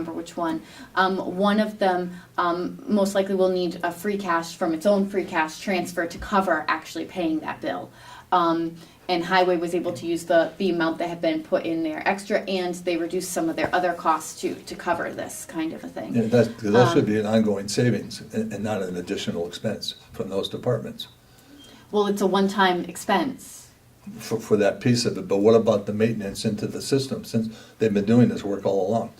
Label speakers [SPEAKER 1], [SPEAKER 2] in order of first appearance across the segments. [SPEAKER 1] remember which one. Um, one of them, um, most likely will need a free cash from its own free cash transfer to cover actually paying that bill. Um, and highway was able to use the, the amount that had been put in there extra and they reduced some of their other costs to, to cover this kind of a
[SPEAKER 2] Yeah,
[SPEAKER 1] thing.
[SPEAKER 2] that's, 'cause that
[SPEAKER 1] Um,
[SPEAKER 2] should be an ongoing savings and, and not an additional expense from those departments
[SPEAKER 1] Well, it's a one-time expense.
[SPEAKER 2] for, for that piece of it. But what about the maintenance into the system since they've been doing this work all along?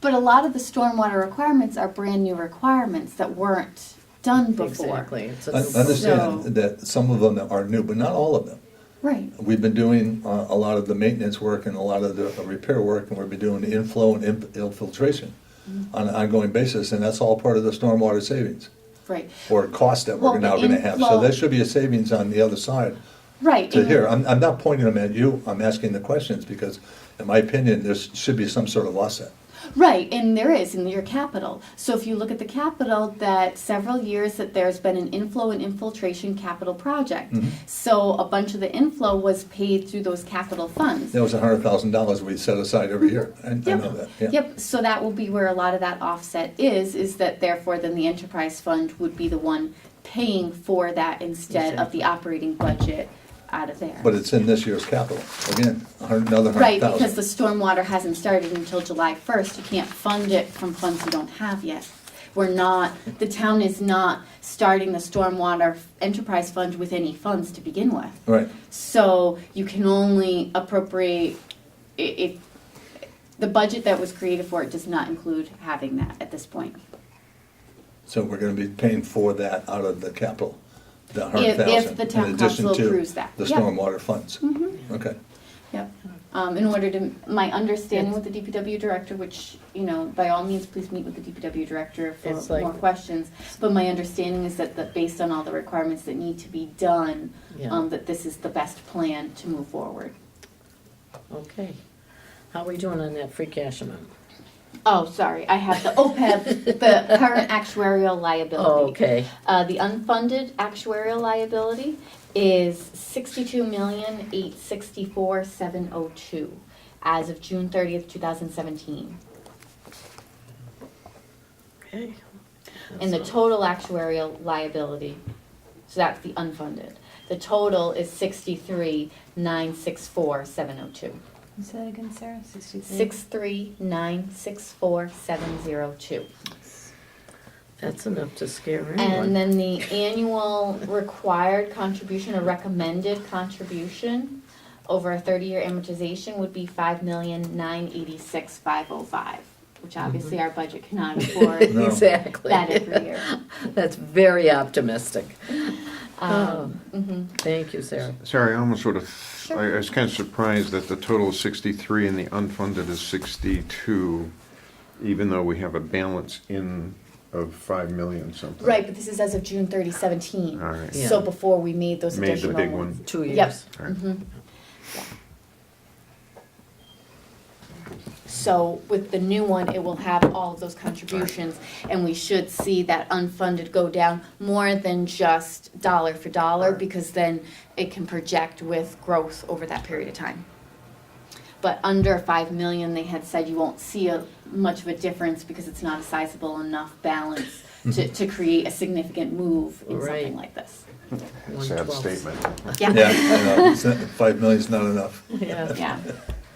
[SPEAKER 1] But a lot of the stormwater requirements are brand new requirements that weren't done before.
[SPEAKER 3] Exactly. So
[SPEAKER 2] I
[SPEAKER 3] it's-
[SPEAKER 1] So-
[SPEAKER 2] understand that some of them are new, but not all of them.
[SPEAKER 1] Right.
[SPEAKER 2] We've been doing uh, a lot of the maintenance work and a lot of the repair work, and we've been doing inflow and inf- infiltration
[SPEAKER 1] Mm-hmm.
[SPEAKER 2] on an ongoing basis, and that's all part of the stormwater savings
[SPEAKER 1] Right.
[SPEAKER 2] or cost that
[SPEAKER 1] Well,
[SPEAKER 2] we're now
[SPEAKER 1] the
[SPEAKER 2] gonna have. So
[SPEAKER 1] inflow-
[SPEAKER 2] there should be a savings on the other side
[SPEAKER 1] Right.
[SPEAKER 2] to
[SPEAKER 1] and-
[SPEAKER 2] here. I'm, I'm not pointing them at you, I'm asking the questions, because in my opinion, there should be some sort of offset.
[SPEAKER 1] Right, and there is in your capital. So if you look at the capital, that several years that there's been an inflow and infiltration capital project.
[SPEAKER 2] Mm-hmm.
[SPEAKER 1] So a bunch of the inflow was paid through those capital funds.
[SPEAKER 2] That was a hundred thousand dollars we set aside every year, I I
[SPEAKER 1] Yep.
[SPEAKER 2] know that, yeah.
[SPEAKER 1] Yep, so that will be where a lot of that offset is, is that therefore then the enterprise fund would be the one paying for that instead of the operating budget out of there.
[SPEAKER 2] But it's in this year's capital, again, a hundred, another hundred
[SPEAKER 1] Right,
[SPEAKER 2] thousand.
[SPEAKER 1] because the stormwater hasn't started until July first, you can't fund it from funds you don't have yet. We're not, the town is not starting the stormwater enterprise fund with any funds to begin with.
[SPEAKER 2] Right,
[SPEAKER 1] So you can only appropriate, i- if, the budget that was created for it does not include having that at this point.
[SPEAKER 2] so we're gonna be paying for that out of the capital, the hundred
[SPEAKER 1] If- if
[SPEAKER 2] thousand,
[SPEAKER 1] the
[SPEAKER 2] in
[SPEAKER 1] town
[SPEAKER 2] addition
[SPEAKER 1] council
[SPEAKER 2] to
[SPEAKER 1] approves that,
[SPEAKER 2] the
[SPEAKER 1] yeah. Mm-hmm.
[SPEAKER 2] stormwater funds. Okay,
[SPEAKER 1] Yep, um, in order to, my understanding with the DPW director, which, you know, by all means, please meet with the DPW director
[SPEAKER 3] It's
[SPEAKER 1] for
[SPEAKER 3] like-
[SPEAKER 1] more questions. But my understanding is that, that based on all the requirements that need to be done,
[SPEAKER 3] Yeah.
[SPEAKER 1] um, that this is the best plan to move forward.
[SPEAKER 3] Okay. How are we doing on that free cash amount?
[SPEAKER 1] Oh, sorry, I have the OPEB, the current actuarial liability.
[SPEAKER 3] Okay.
[SPEAKER 1] Uh, the unfunded actuarial liability is sixty-two million, eight sixty-four, seven oh two as of June thirtieth, two thousand seventeen.
[SPEAKER 3] Okay.
[SPEAKER 1] And the total actuarial liability, so that's the unfunded. The total is sixty-three, nine, six, four, seven, oh, two.
[SPEAKER 4] Say that again, Sarah. Sixty-three.
[SPEAKER 1] Six-three, nine, six, four, seven, zero, two.
[SPEAKER 3] That's enough to scare
[SPEAKER 1] And
[SPEAKER 3] anyone.
[SPEAKER 1] then the annual required contribution or recommended contribution over a thirty-year amortization would be five million, nine, eighty-six, five, oh, five, which obviously our budget cannot afford
[SPEAKER 2] No.
[SPEAKER 3] Exactly.
[SPEAKER 1] that every year.
[SPEAKER 3] That's very optimistic.
[SPEAKER 1] Um, mhm.
[SPEAKER 3] Thank you, Sarah.
[SPEAKER 5] Sorry, I almost sort of, I I was kind of surprised that the total is 63 and the unfunded is 62, even though we have a balance in of 5 million something.
[SPEAKER 1] Right, but this is as of June 30, 17.
[SPEAKER 5] All right.
[SPEAKER 1] So
[SPEAKER 3] Yeah.
[SPEAKER 1] before we made those
[SPEAKER 5] Made the
[SPEAKER 1] additional
[SPEAKER 5] big
[SPEAKER 1] ones.
[SPEAKER 5] one.
[SPEAKER 3] Two
[SPEAKER 1] Yep. Mm-hmm.
[SPEAKER 3] years.
[SPEAKER 5] All right.
[SPEAKER 1] So with the new one, it will have all of those contributions, and we should see that unfunded go down more than just dollar for dollar, because then it can project with growth over that period of time. But under 5 million, they had said you won't see a, much of a difference because it's not a sizable enough balance
[SPEAKER 5] Mm-hmm.
[SPEAKER 1] to, to create a significant move in
[SPEAKER 3] Right.
[SPEAKER 1] something like this.
[SPEAKER 5] Sad
[SPEAKER 3] 1/12.
[SPEAKER 5] statement.
[SPEAKER 2] yeah, you know, it's not- five million's not enough.
[SPEAKER 3] Yeah,
[SPEAKER 1] Yeah,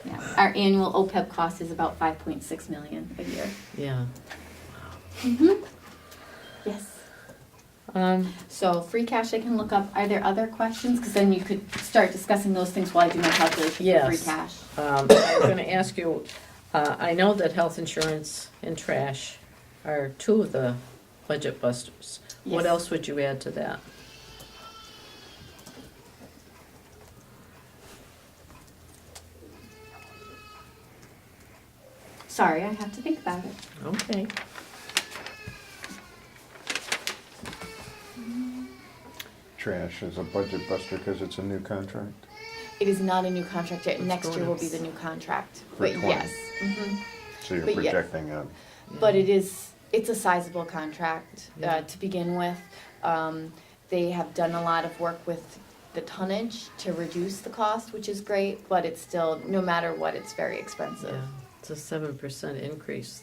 [SPEAKER 1] yeah. Our annual OPEB cost is about five point six million a year.
[SPEAKER 3] yeah.
[SPEAKER 1] Yes.
[SPEAKER 3] Um,
[SPEAKER 1] So free cash I can look up. Are there other questions? Because then you could start discussing those things while I do my calculation for free
[SPEAKER 3] Yes.
[SPEAKER 1] cash.
[SPEAKER 3] um, I'm gonna ask you, uh, I know that health insurance and trash are two of the budget busters. What
[SPEAKER 1] Yes.
[SPEAKER 3] else would you add to that?
[SPEAKER 1] Sorry, I have to think about it.
[SPEAKER 3] Okay.
[SPEAKER 5] Trash is a budget buster because it's a new contract.
[SPEAKER 1] It is not a new contract yet. Next year will be
[SPEAKER 3] bonus.
[SPEAKER 1] the new contract.
[SPEAKER 5] For
[SPEAKER 1] But
[SPEAKER 5] 20.
[SPEAKER 1] yes. mhm.
[SPEAKER 5] So you're
[SPEAKER 1] But yes.
[SPEAKER 5] projecting a,
[SPEAKER 1] But it is, it's a sizable contract uh, to begin with. Um, They have done a lot of work with the tonnage to reduce the cost, which is great, but it's still, no matter what, it's very expensive.
[SPEAKER 3] Yeah, it's a seven percent increase